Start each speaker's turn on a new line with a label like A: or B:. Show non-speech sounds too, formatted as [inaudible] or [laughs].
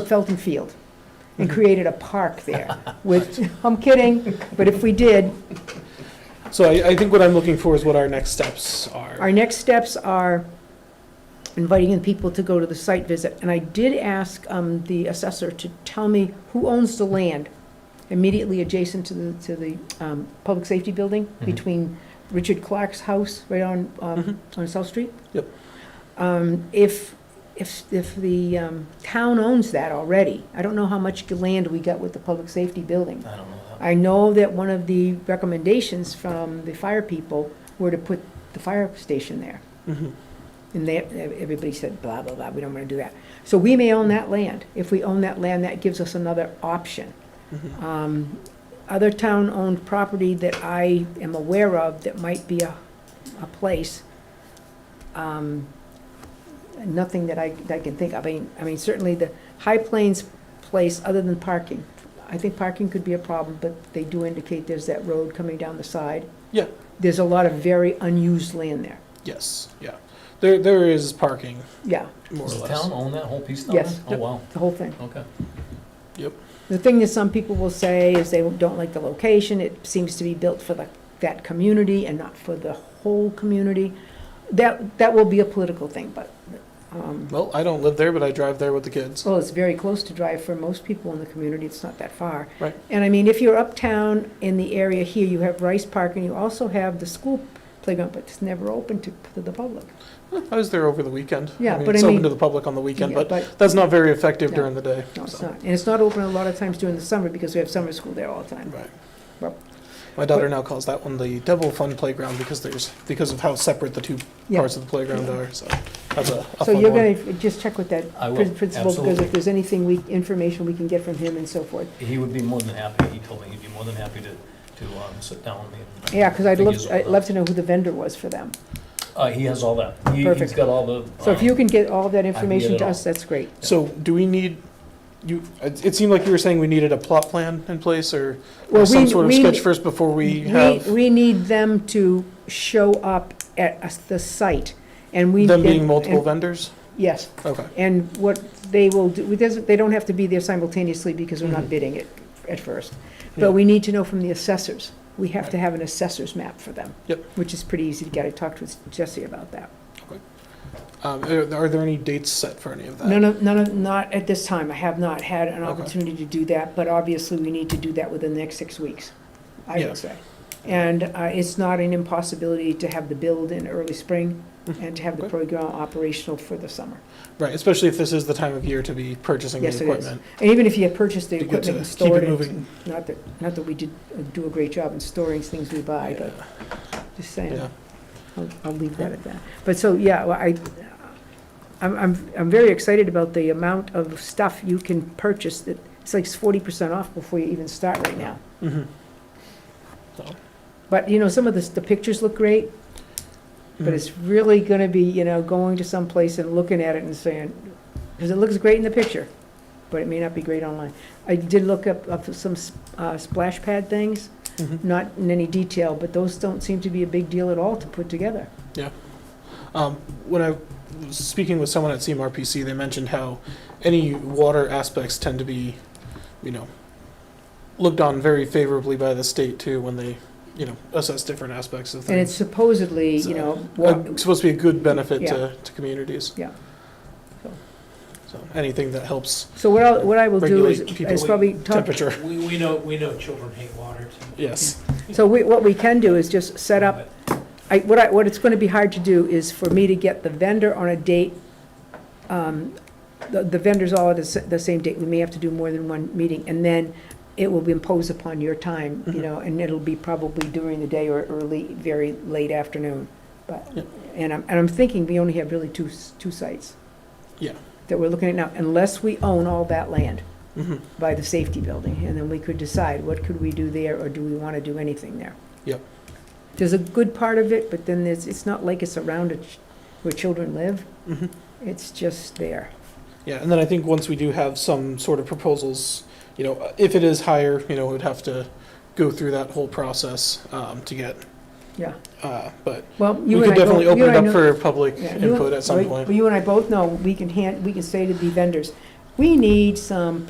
A: Felton Field and created a park there, which, [laughs] I'm kidding, but if we did,
B: So I, I think what I'm looking for is what our next steps are.
A: Our next steps are inviting in people to go to the site visit. And I did ask um, the assessor to tell me who owns the land immediately adjacent to the, to the um, public safety building
C: Mhm.
A: between Richard Clark's house right on,
B: Mhm.
A: um, on South Street.
B: Yep.
A: Um, If, if, if the um, town owns that already, I don't know how much land we got with the public safety building.
C: I don't know. that.
A: I know that one of the recommendations from the fire people were to put the fire station there.
B: Mhm.
A: And they, everybody said, blah, blah, blah, we don't want to do that. So we may own that land. If we own that land, that gives us another option.
B: Mhm.
A: Um, Other town-owned property that I am aware of that might be a, a place, um, nothing that I, that I can think of. I mean, I mean, certainly the High Plains place, other than parking, I think parking could be a problem, but they do indicate there's that road coming down the side.
B: Yeah.
A: There's a lot of very unused land there.
B: Yes, yeah. There, there is parking,
A: Yeah,
B: more or
C: Does the
B: less.
C: town own that whole piece down there?
A: Yes.
C: Oh, wow,
A: the whole thing.
C: okay.
A: The thing that some people will say is they don't like the location, it seems to be built for the, that community and not for the whole community. That, that will be a political thing, but, um,
B: Well, I don't live there, but I drive there with the kids.
A: well, it's very close to drive for most people in the community, it's not that far.
B: Right.
A: And I mean, if you're uptown in the area here, you have Rice Park and you also have the school playground, but it's never open to, to the public.
B: I was there over the weekend.
A: Yeah, but I
B: It's
A: mean-
B: open to the public on the weekend,
A: Yeah,
B: but that's not very effective
A: No.
B: during the day.
A: No, it's
B: so,
A: not, and it's not open a lot of times during the summer because we have summer school there all the time.
B: Right.
A: Well-
B: My daughter now calls that one the Devil Fun Playground because there's, because of how separate the two
A: Yeah.
B: parts of the playground
A: Yeah.
B: are, so that's a, a
A: So
B: fun
A: you're
B: one.
A: gonna just check with that
C: I will,
A: prin- principal, because
C: absolutely.
A: if there's anything we, information we can get from him and so forth.
C: He would be more than happy, he told me he'd be more than happy to, to um, sit down with me. and
A: Yeah, because I'd
C: figures
A: love,
C: all
A: I'd
C: that.
A: love to know who the vendor was for them.
C: Uh, he has all that. He- He's
A: Perfect.
C: got all the.
A: So if
C: um,
A: you can get all that
C: get
A: information
C: it
A: to
C: all.
A: us, that's great.
B: So do we need, you, it it seemed like you were saying we needed a plot plan in place or
A: Well,
B: or some
A: we-
B: sort of
A: we-
B: sketch first before we have
A: We need them to show up at us- the site, and we.
B: them being
A: and-
B: multiple
A: and-
B: vendors?
A: Yes,
B: Okay,
A: and what they will do, it doesn't- they don't have to be there simultaneously because we're not
B: Mhm.
A: bidding it at first.
B: Yeah.
A: But we need to know from the assessors. We have to have an assessor's map for them.
B: Yep.
A: Which is pretty easy to get. I talked with Jesse about that.
B: um, are are there any dates set for any of that?
A: None of, none of, not at this time. I have not had an
B: Okay.
A: opportunity to do that, but obviously we need to do that within the next six weeks, I
B: Yeah.
A: would say. And uh, it's not an impossibility to have the build in early spring and to have the
B: Mm-hmm. Okay.
A: program operational for the summer.
B: Right, especially if this is the time of year to be purchasing the
A: Yes, it is.
B: equipment.
A: And even if you have purchased the
B: Be good
A: equipment
B: to
A: and
B: keep
A: stored
B: it
A: it,
B: moving.
A: not that, not that we did uh, do a great job in storing things we buy,
B: Yeah,
A: but just saying.
B: yeah.
A: I'll, I'll leave that at that. But so, yeah, well, I, I'm, I'm, I'm very excited about the amount of stuff you can purchase that, it's like forty percent off before you even start right now.
B: Mhm.
A: But, you know, some of the, the pictures look great, but
B: Mhm.
A: it's really gonna be, you know, going to some place and looking at it and saying, because it looks great in the picture, but it may not be great online. I did look up, up some s- uh, splash pad things,
B: Mhm.
A: not in any detail, but those don't seem to be a big deal at all to put together.
B: Um, When I was speaking with someone at CMRPC, they mentioned how any water aspects tend to be, you know, looked on very favorably by the state too when they, you know, assess different aspects of
A: And it's
B: things.
A: supposedly, you
B: So,
A: know, wa-
B: Uh, Supposed to be a good benefit to, to communities.
A: Yeah. So-
B: So anything that helps
A: So what I'll, what I will do is,
B: Regulate people
A: is probably talk,
B: temperature,
D: We, we know, we know children hate water too.
B: yes.
A: so we, what we can do is just set up, I, what I, what it's gonna be hard to do is for me to get the vendor on a date. um, The, the vendors all at the, s- the same date, we may have to do more than one meeting, and then it will be imposed upon your time, you
B: Mhm.
A: know, and it'll be probably during the day or early, very late afternoon. But,
B: Yep.
A: and I'm, and I'm thinking we only have really two, s- two sites.
B: Yeah.
A: That we're looking at now, unless we own all that land.
B: Mhm.
A: by the safety building, and then we could decide what could we do there, or do we want to do anything there?
B: Yep.
A: There's a good part of it, but then there's, it's not like it's around it where children live,
B: Mhm.
A: it's just there.
B: Yeah, and then I think once we do have some sort of proposals, you know, uh, if it is higher, you know, we'd have to go through that whole process um, to get.
A: Yeah.
B: Uh, But
A: Well,
B: we
A: you and
B: could
A: I both.
B: definitely
A: you
B: open
A: and
B: it
A: I
B: up
A: know-
B: for public
A: yeah, you and-
B: input at some
A: right,
B: point.
A: But you and I both know, we can hand, we can say to the vendors, we need some